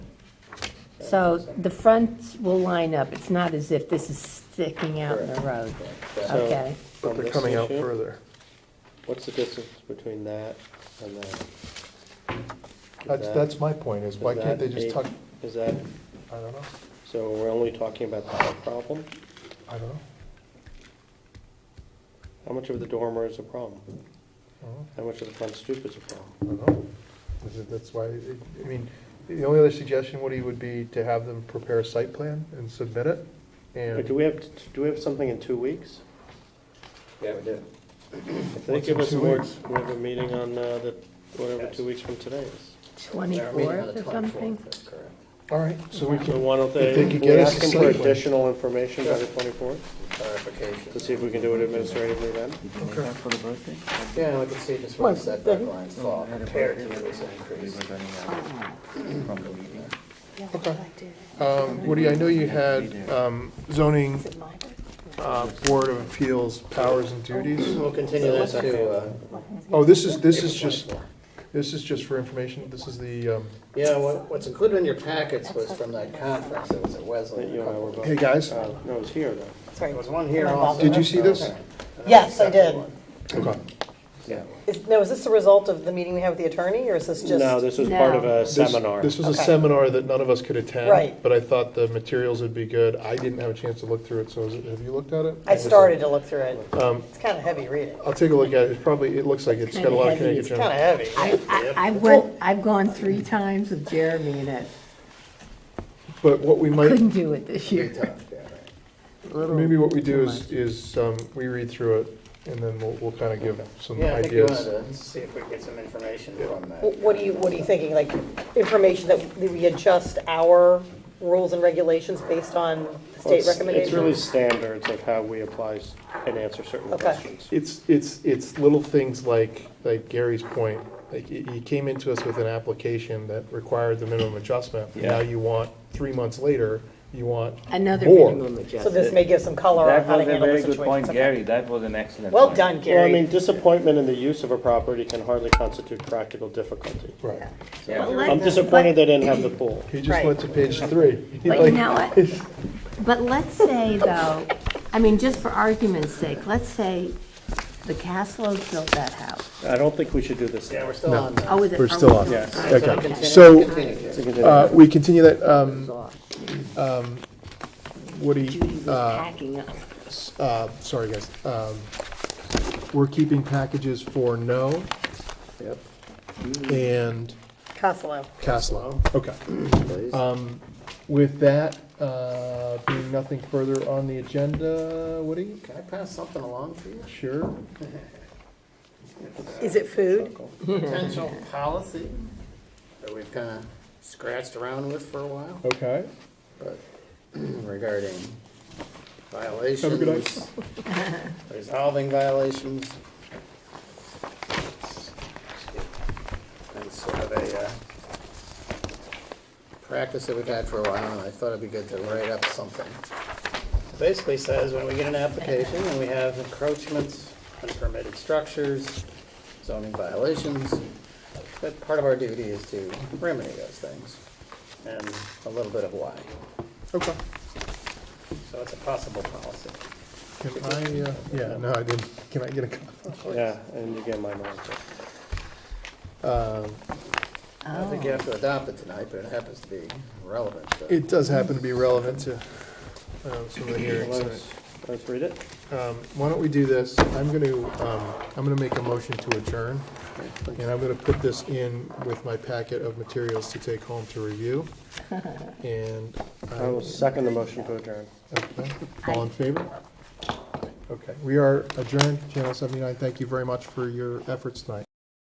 So the fronts will line up, it's not as if this is sticking out in the road. So- Okay, From But they're this coming out issue? further. What's the distance between that and that? Is That's, that- that's my point, is why is can't they that just eight- tuck, Is that, I don't know, so we're only talking about the height problem? I don't know. How much of the dormer is a problem? I don't know. How much of the front stoop is a problem? I don't know. This is- That's why, it- I mean, the only other suggestion, Woody, would be to have them prepare a site plan and submit it. But do And we have, do we have something in two weeks? Yeah, we did. If they What's give in us two more, weeks? we have a meeting on, uh, the, whatever, two weeks from today is. Our meeting on twenty-fourth the or something? 24th, that's correct. All right, so we So can, why don't they, If they could we get us ask a them for site plan. additional information by the twenty-fourth, Clarification. to see if we can do it administratively then? okay, For the birthday? Yeah, I can see just where the setback lines fall compared to this increase. okay. Um, Woody, I know you had, um, zoning, uh, board of appeals powers and duties. We'll continue this to, uh, Oh, this is, this is just, this is just for information, this is the, um, yeah, what, what's included in your packets was from that conference that was at That Wesleyan. you and I were both. hey, guys, Uh, no, it's here though. Sorry. There was one here also. Did you see this? Yes, I did. okay. Yeah. Is, now, is this a result of the meeting we had with the attorney, or is this just? No, this was part of a No. This- seminar. This was a Okay. seminar that none of us could attend. Right. But I thought the materials would be good. I didn't have a chance to look through it, so is it- have you looked at it? I started to look through it. Um, It's kind of heavy reading. I'll take a look at it. It's probably, it looks like it's got a lot of Kinda heavy. Connecticut It's kind of junk. heavy. I, I, I went, I've gone three times with Jeremy and I But what we might, couldn't do it this year. Tough, yeah, right. A little maybe what we do too is, much. is um, we read through it and then we'll, we'll kind of give some Yeah, I think you wanted ideas. Oh. to see if we could get some information from that. Wh- What are you, what are you thinking, like, information that we adjust our rules and regulations based on Well, state it's- It's really recommendations? standards of how we apply s- and answer certain Okay. questions. It's, it's, it's little things like, like Gary's point. Like y- you came into us with an application that required the minimum adjustment. Now you want, three months later, you want Another more. minimum So this adjustment. may give some color on That how to was a handle the very good situation. point, Okay. Gary, that was an excellent. Well point. done, Well, I mean, Gary. disappointment in the use of a property can hardly constitute practical difficulty. Right. Yeah. But let- I'm disappointed they didn't have the pool. He just Right. went to page three. He But you like- know what? But let's say though, I mean, just for argument's sake, let's say the Caslows built that house. I don't think we should do this Yeah, now. we're still on that. Oh, is it? We're still on. Yes. Okay, Continue- so, continue this. uh, we continue that, um, off. Woody, Judy was packing up. uh, sorry, guys. Um, We're keeping packages for no Yep, and Costello. Caslow. Okay. please. um, With that, uh, being nothing further on the agenda, Woody? Can I pass something along for you? Sure. Is it food? potential policy that we've kind of scratched around with for a while, Okay. but regarding violations, resolving violations. And sort of a, uh, practice that we've had for a while, and I thought it'd be good to write up something. Basically says, when we get an application and we have encroachments, unpermitted structures, zoning violations, that part of our duty is to remedy those things, and a little bit of why. Okay. So it's a possible policy. Can I, uh, yeah, no, I didn't. Can I get a copy? Yeah, and you get my mind. but- Um, I don't think you have to adopt it tonight, but it happens to be relevant to. It does happen to be relevant to um, some of the hearings. so- Let's let's read it. Um, Why don't we do this? I'm going to, I'm going to make a motion to adjourn, and I'm going to put this in with my packet of materials to take home to review. And, I will second the motion to adjourn. okay, all in favor? Okay, we are adjourned, Channel 79. Thank you very much for your efforts tonight.